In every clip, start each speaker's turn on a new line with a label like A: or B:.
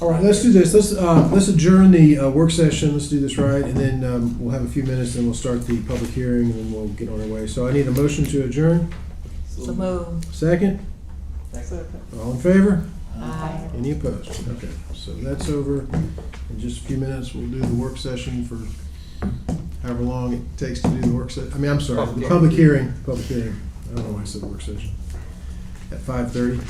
A: All right, let's do this. Let's, uh, let's adjourn the, uh, work session. Let's do this right, and then, um, we'll have a few minutes, then we'll start the public hearing, and then we'll get on our way. So I need a motion to adjourn.
B: So move.
A: Second,
B: Second.
A: all in favor?
B: Aye.
A: Any opposed? Okay, so that's over. In just a few minutes, we'll do the work session for however long it takes to do the work session. I mean, I'm sorry, the public hearing, public hearing. I don't know why I said work session. At five thirty.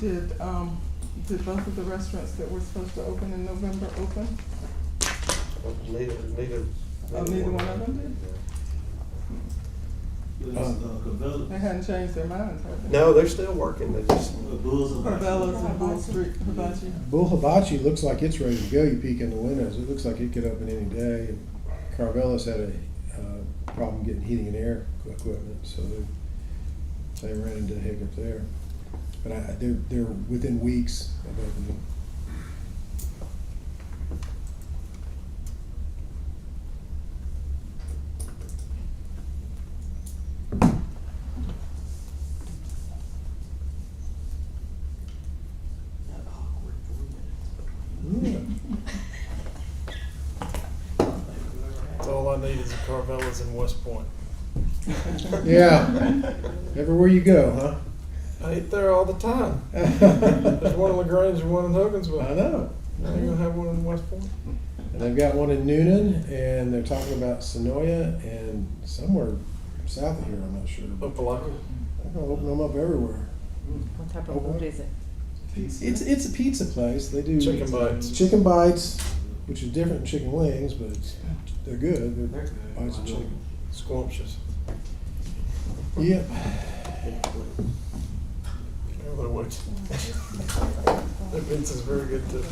C: Did, um, did both of the restaurants that were supposed to open in November open?
D: Neither, neither.
C: Oh, neither one of them did? They hadn't changed their minds, have they?
D: No, they're still working, they just,
C: Carvelas and Bull Street Hibachi.
A: Bull Hibachi looks like it's ready to go. You peek in the windows, it looks like it could open any day. And Carvelis had a uh, problem getting heating and air equipment, so they, they ran into a hiccup there. But I, I- they're, they're within weeks of opening.
E: Hmm. All I need is a Carvelas in West Point.
A: Yeah, everywhere you go,
E: I eat there all the time. There's one
A: huh?
E: in LaGrange and one in
A: I
E: Hogansville.
A: know.
E: Now you're gonna have one in West Point?
A: And they've got one in Noonan, and they're talking about Sonoya and somewhere south of here, I'm not sure. But
E: Opelika.
A: They're gonna open them up everywhere.
B: What type of food is it?
A: It's it's a pizza place. They do
E: Chicken bites.
A: chicken bites, which is different than chicken wings, but it's, they're good. They're, bites of chicken.
E: Squamches.
A: Yep.
E: Everybody works. Their pizza's very good too.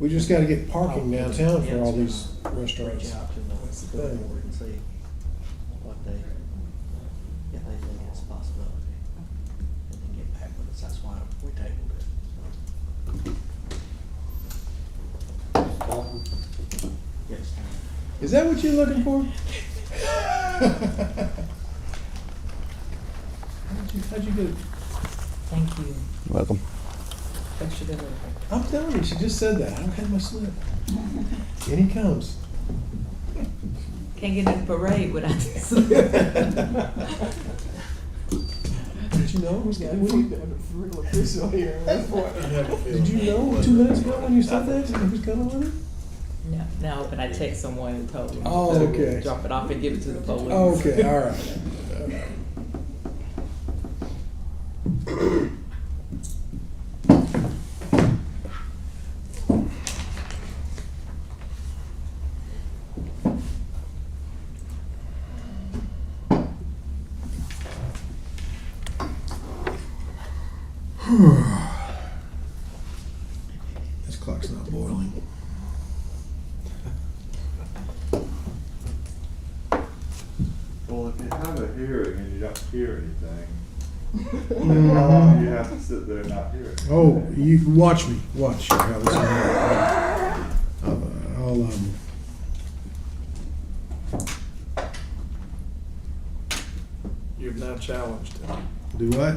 A: We just got to get parking downtown for all these restaurants. That's the thing.
F: and see what they, if they think it's a possibility. And then get back with us, that's why we tabled it. Yes.
A: Is that what you're looking for? how'd, you, how'd you get? it?
B: Thank you.
G: Welcome.
B: Extra good.
A: I'm telling you, she just said that. I don't have my slip. In he comes.
B: Can't get in the parade without this.
A: Did you know it was
C: Yeah,
A: going
C: we need
A: to
C: to have a real official here in West
E: You
C: Point.
E: have a feeling.
A: Did you know two minutes ago when you said that that he was coming with it?
B: No, no, but I text someone and told them.
A: Oh,
B: So,
A: okay. Oh,
B: Drop it off and give it to the police.
A: Okay, all right. This clock's not boiling.
H: Well, if you have a hearing and you don't hear anything, how long do you
A: Mhm.
H: have to sit there and not hear it?
A: Oh, you watch me, watch how this. I'll, I'll um.
E: You've now challenged him.
A: Do what?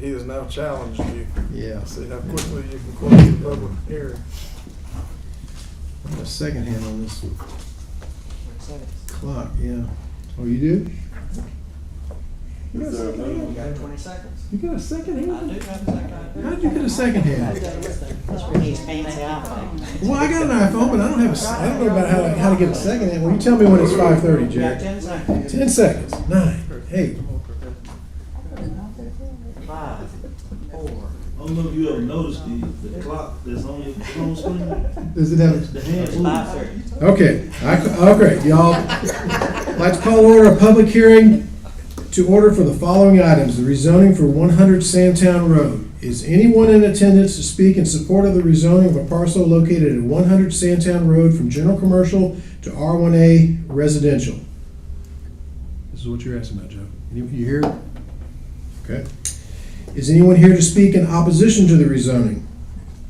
E: He has now challenged you.
A: Yeah.
E: See how quickly you can close the public hearing.
A: I have a second hand on this
B: Thanks.
A: clock, yeah. Oh, you do?
H: Is there a minimum?
F: You got twenty seconds?
A: You got a second
F: I do have a second.
A: How'd you get a second hand?
F: That's when he's fancy, I think.
A: Well, I got an iPhone, but I don't have a, s- I don't know about how to, how to get a second hand. Well, you tell me when it's five thirty,
F: You got
A: Jack.
F: ten seconds.
A: Ten seconds, nine, eight,
F: Five, four,
I: I don't know if you ever noticed the, the clock that's on your phone screen,
A: does it have?
I: the hand
F: it's
I: moves.
F: five thirty.
A: Okay, I, okay, y'all. I'd Like to call order a public hearing to order for the following items. The rezoning for one hundred Sandtown Road. Is anyone in attendance to speak in support of the rezoning of a parcel located at one hundred Sandtown Road from general commercial to R one A residential? This is what you're asking about, Joe. You you here? Okay. Is anyone here to speak in opposition to the rezoning?